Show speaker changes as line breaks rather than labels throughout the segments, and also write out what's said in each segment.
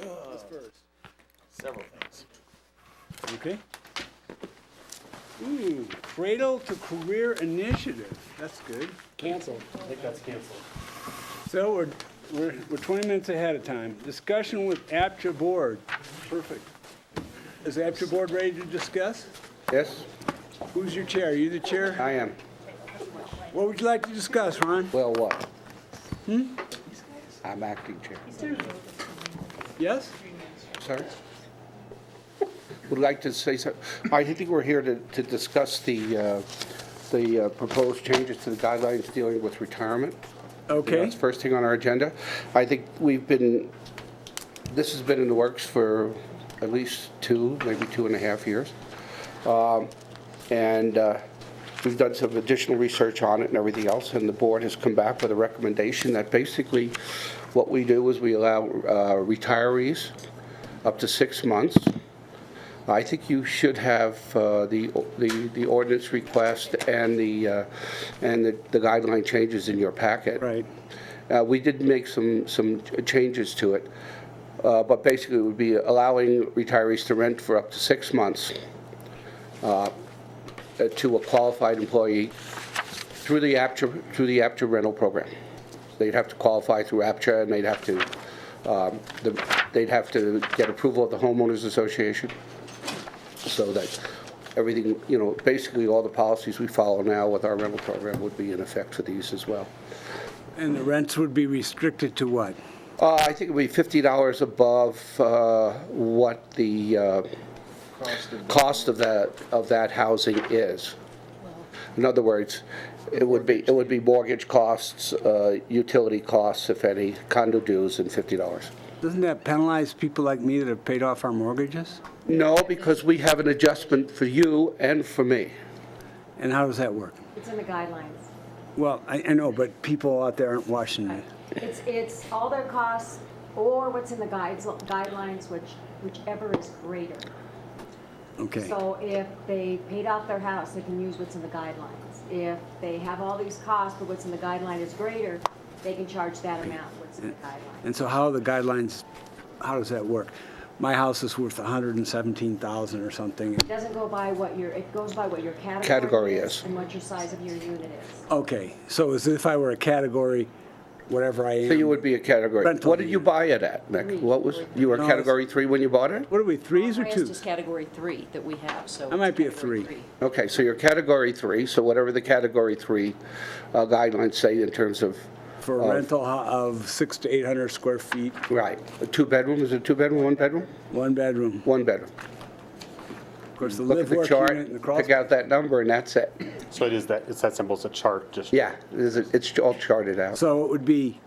Who's first?
Several things.
Okay. Ooh, Cradle to Career Initiative, that's good.
Canceled. I think that's canceled.
So we're, we're, we're 20 minutes ahead of time. Discussion with APTA Board. Perfect. Is APTA Board ready to discuss?
Yes,
Who's your chair? Are you the chair?
I am.
What would you like to discuss, Ron?
Well, what? Hmm? I'm acting chair.
Yes?
Sorry? Would like to say something. I think we're here to, to discuss the, uh, the uh, proposed changes to the guidelines dealing with retirement.
Okay,
That's first thing on our agenda. I think we've been, this has been in the works for at least two, maybe two and a half years. Um, And uh, we've done some additional research on it and everything else, and the board has come back with a recommendation that basically what we do is we allow uh, retirees up to six months. I think you should have uh, the the the ordinance request and the, uh, and the- the guideline changes in your packet.
right.
Uh, We did make some, some changes to it, uh, but basically it would be allowing retirees to rent for up to six months uh, uh, to a qualified employee through the APTRA, through the APTRA rental program. They'd have to qualify through APTRA, and they'd have to, um, the- they'd have to get approval of the homeowners association, so that everything, you know, basically all the policies we follow now with our rental program would be in effect for these as well.
And the rents would be restricted to what?
Uh, I think it would be fifty dollars above, uh, what the, uh, cost of that, of that housing is. In other words, it would be, it would be mortgage costs, uh, utility costs, if any, condo dues, and fifty dollars.
Doesn't that penalize people like me that have paid off our mortgages?
No, because we have an adjustment for you and for me.
And how does that work?
It's in the guidelines.
Well, I, I know, but people out there aren't watching it.
It's, it's all their costs or what's in the guides, guidelines, which, whichever is greater.
Okay,
So if they paid off their house, they can use what's in the guidelines. If they have all these costs, but what's in the guideline is greater, they can charge that amount, what's in the guideline.
and so how are the guidelines, how does that work? My house is worth 117,000 or something.
It doesn't go by what your, it goes by what your
Category
category
is.
is and what your size of your unit is.
Okay, so as if I were a category, whatever I am.
So you would be a category.
Rental
What did you buy it at, Nick? What was, you were
No, it's-
category three when you bought it?
What are we, threes or
Highest is
twos?
category three that we have, so.
I might be a
category
three.
Okay, so you're category three, so whatever the category three uh, guidelines say in terms of,
For a rental ho- of six to 800 square feet,
right, a two-bedroom, is it two-bedroom, one-bedroom?
one bedroom.
One-bedroom.
Of course, the
Look at
live
the
work
chart,
unit and the crawl
pick out that number, and that's it.
So it is that, it's that simple, it's a chart, just.
Yeah, is it- it's all charted out.
So it would be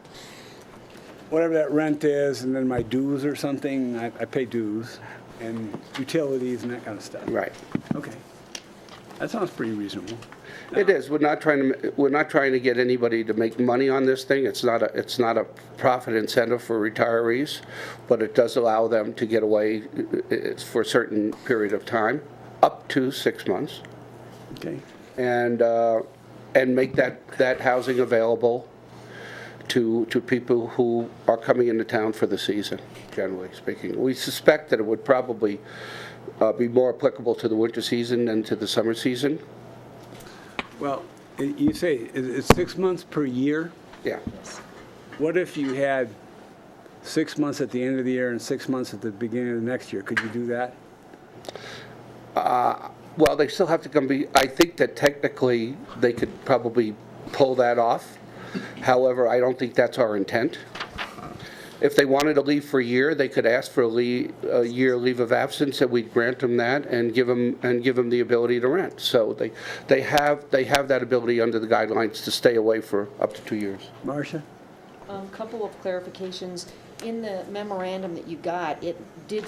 whatever that rent is, and then my dues or something, I, I pay dues, and utilities and that kind of stuff.
Right.
Okay. That sounds pretty reasonable.
It is, we're not trying to, we're not trying to get anybody to make money on this thing. It's not a, it's not a profit incentive for retirees, but it does allow them to get away uh, uh, for a certain period of time, up to six months.
Okay.
and, uh, and make that, that housing available to, to people who are coming into town for the season, generally speaking. We suspect that it would probably uh, be more applicable to the winter season than to the summer season.
Well, i- you say it- it's six months per year.
Yeah,
What if you had six months at the end of the year and six months at the beginning of the next year? Could you do that?
well, they still have to come be, I think that technically, they could probably pull that off. However, I don't think that's our intent. If they wanted to leave for a year, they could ask for a lea- a year leave of absence, and we'd grant them that and give them, and give them the ability to rent. So they, they have, they have that ability under the guidelines to stay away for up to two years.
Marcia?
Um, couple of clarifications. In the memorandum that you got, it did